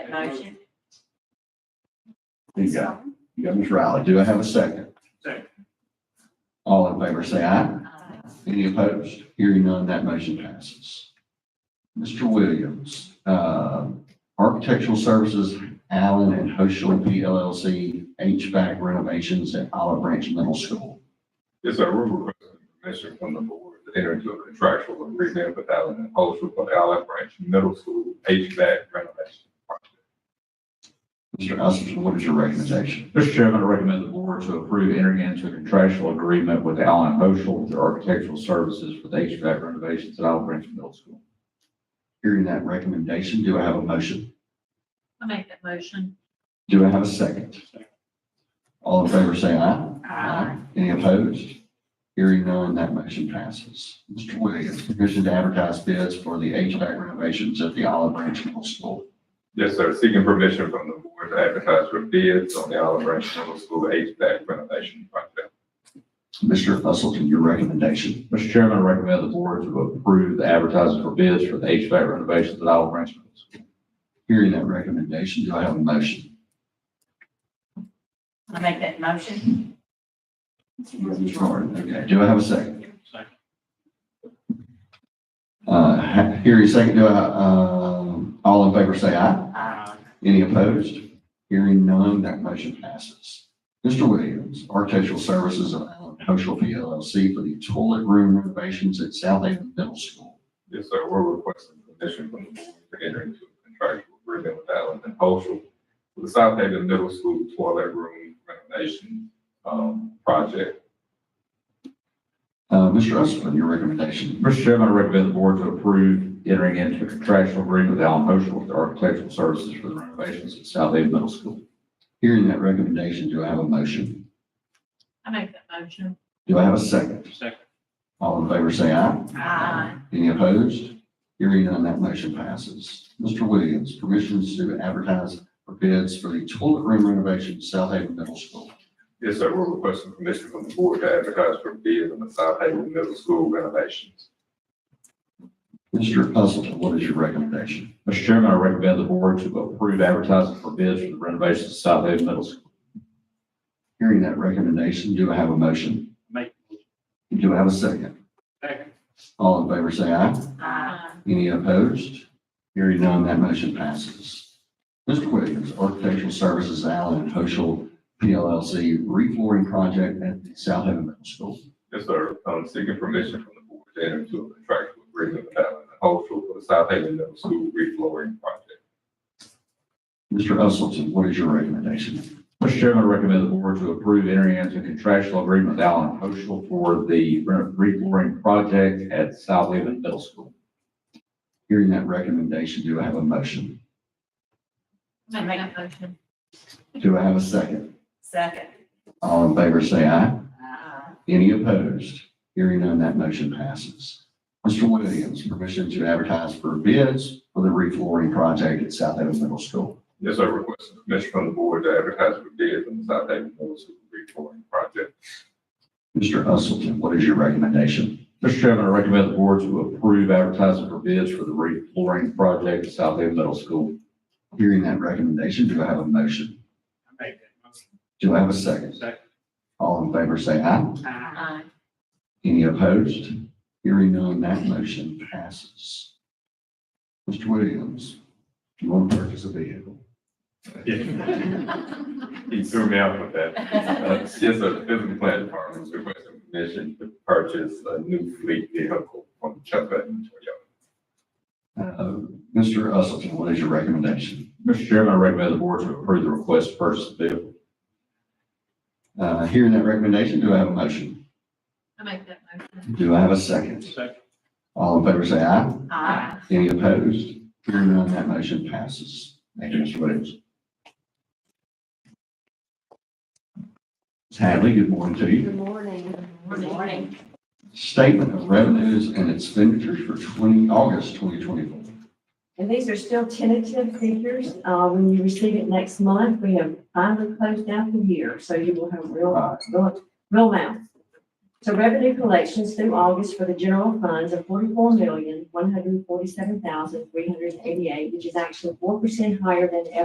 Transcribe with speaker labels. Speaker 1: motion.
Speaker 2: You got, you got Ms. Riley. Do I have a second?
Speaker 3: Second.
Speaker 2: All in favor, say aye.
Speaker 1: Aye.
Speaker 2: Any opposed? Hearing none, that motion passes. Mr. Williams, uh, Architectural Services, Allen and Hoshler PLLC, HVAC renovations at Olive Branch Middle School.
Speaker 4: Yes, sir, we're requesting permission from the board to enter into a contractual agreement with Allen and Holsham for the Allen Branch Middle School HVAC renovation project.
Speaker 2: Mr. Usleton, what is your recommendation?
Speaker 5: Mr. Chairman, I recommend the board to approve entering into a contractual agreement with Allen Moschel for architectural services for the HVAC renovations at Olive Branch Middle School.
Speaker 2: Hearing that recommendation, do I have a motion?
Speaker 1: I make that motion.
Speaker 2: Do I have a second? All in favor, say aye. Any opposed? Hearing none, that motion passes. Mr. Williams, permission to advertise bids for the HVAC renovations at the Olive Branch Middle School.
Speaker 4: Yes, sir, seeking permission from the board to advertise for bids on the Allen Branch Middle School HVAC renovation project.
Speaker 2: Mr. Usleton, your recommendation.
Speaker 5: Mr. Chairman, I recommend the board to approve the advertising for bids for the HVAC renovations at Olive Branch Middle School.
Speaker 2: Hearing that recommendation, do I have a motion?
Speaker 1: I make that motion.
Speaker 2: Ms. Jordan, okay, do I have a second?
Speaker 3: Second.
Speaker 2: Uh, ha- hearing second, do I, um, all in favor say aye.
Speaker 1: Aye.
Speaker 2: Any opposed? Hearing none, that motion passes. Mr. Williams, Architectural Services of Allen Cultural PLLC for the toilet room renovations at South Haven Middle School.
Speaker 4: Yes, sir, we're requesting permission from the board to enter into a contractual agreement with Allen and Holsham for the South Haven Middle School toilet room renovation, um, project.
Speaker 2: Uh, Mr. Usleton, your recommendation.
Speaker 5: Mr. Chairman, I recommend the board to approve entering into a contractual agreement with Allen Moschel for architectural services for the renovations at South Haven Middle School.
Speaker 2: Hearing that recommendation, do I have a motion?
Speaker 1: I make that motion.
Speaker 2: Do I have a second?
Speaker 3: Second.
Speaker 2: All in favor, say aye.
Speaker 1: Aye.
Speaker 2: Any opposed? Hearing none, that motion passes. Mr. Williams, permissions to advertise for bids for the toilet room renovation at South Haven Middle School.
Speaker 4: Yes, sir, we're requesting permission from the board to advertise for bids on the South Haven Middle School renovations.
Speaker 2: Mr. Usleton, what is your recommendation?
Speaker 5: Mr. Chairman, I recommend the board to approve advertising for bids for the renovations at South Haven Middle School.
Speaker 2: Hearing that recommendation, do I have a motion?
Speaker 3: Make.
Speaker 2: Do I have a second?
Speaker 3: Second.
Speaker 2: All in favor, say aye.
Speaker 1: Uh, Aye.
Speaker 2: Any opposed? Hearing none, that motion passes. Mr. Williams, Architectural Services Allen and Hoschel PLLC reflooring project at the South Haven Middle School.
Speaker 4: Yes, sir. I'm seeking permission from the board to enter into a contractual agreement with Allen and Cultural for the South Haven Middle School reflooring project.
Speaker 2: Mr. Usleton, what is your recommendation?
Speaker 5: Mr. Chairman, I recommend the board to approve entering into a contractual agreement with Allen Moschel for the re- reflooring project at South Haven Middle School.
Speaker 2: Hearing that recommendation, do I have a motion?
Speaker 1: I make that motion.
Speaker 2: Do I have a second?
Speaker 1: Second.
Speaker 2: All in favor, say aye.
Speaker 1: Aye.
Speaker 2: Any opposed? Hearing none, that motion passes. Mr. Williams, permission to advertise for bids for the reflooring project at South Haven Middle School.
Speaker 4: Yes, sir. Requesting permission from the board to advertise for bids on the South Haven Middle School reflooring project.
Speaker 2: Mr. Usleton, what is your recommendation?
Speaker 5: Mr. Chairman, I recommend the board to approve advertising for bids for the reflooring project at South Haven Middle School.
Speaker 2: Hearing that recommendation, do I have a motion?
Speaker 3: I make that motion.
Speaker 2: Do I have a second?
Speaker 3: Second.
Speaker 2: All in favor, say aye.
Speaker 3: Aye.
Speaker 1: Aye.
Speaker 2: Any opposed? Hearing none, that motion passes. Mr. Williams, do you want to purchase a vehicle?
Speaker 4: He threw me out with that. Uh, Yes, sir. The physical plant department is requesting permission to purchase a new fleet vehicle from Chubb and Toyota.
Speaker 2: Uh, Mr. Usleton, what is your recommendation?
Speaker 5: Mr. Chairman, I recommend the board to approve the request to purchase the vehicle.
Speaker 2: Uh, Hearing that recommendation, do I have a motion?
Speaker 1: I make that motion.
Speaker 2: Do I have a second?
Speaker 3: Second.
Speaker 2: All in favor, say aye.
Speaker 1: Aye.
Speaker 2: Any opposed? Hearing none, that motion passes. Thank you, Mr. Williams. Ms. Hadley, good morning to you.
Speaker 6: Good morning.
Speaker 1: Good morning.
Speaker 2: Statement of revenues and expenditures for 20, August 2024.
Speaker 6: And these are still tentative figures. Uh, when you receive it next month, we have finally closed out the year, so you will have real, real, real amounts. So revenue collections through August for the general funds of forty-four million, one hundred forty-seven thousand, three hundred eighty-eight, which is actually four percent higher than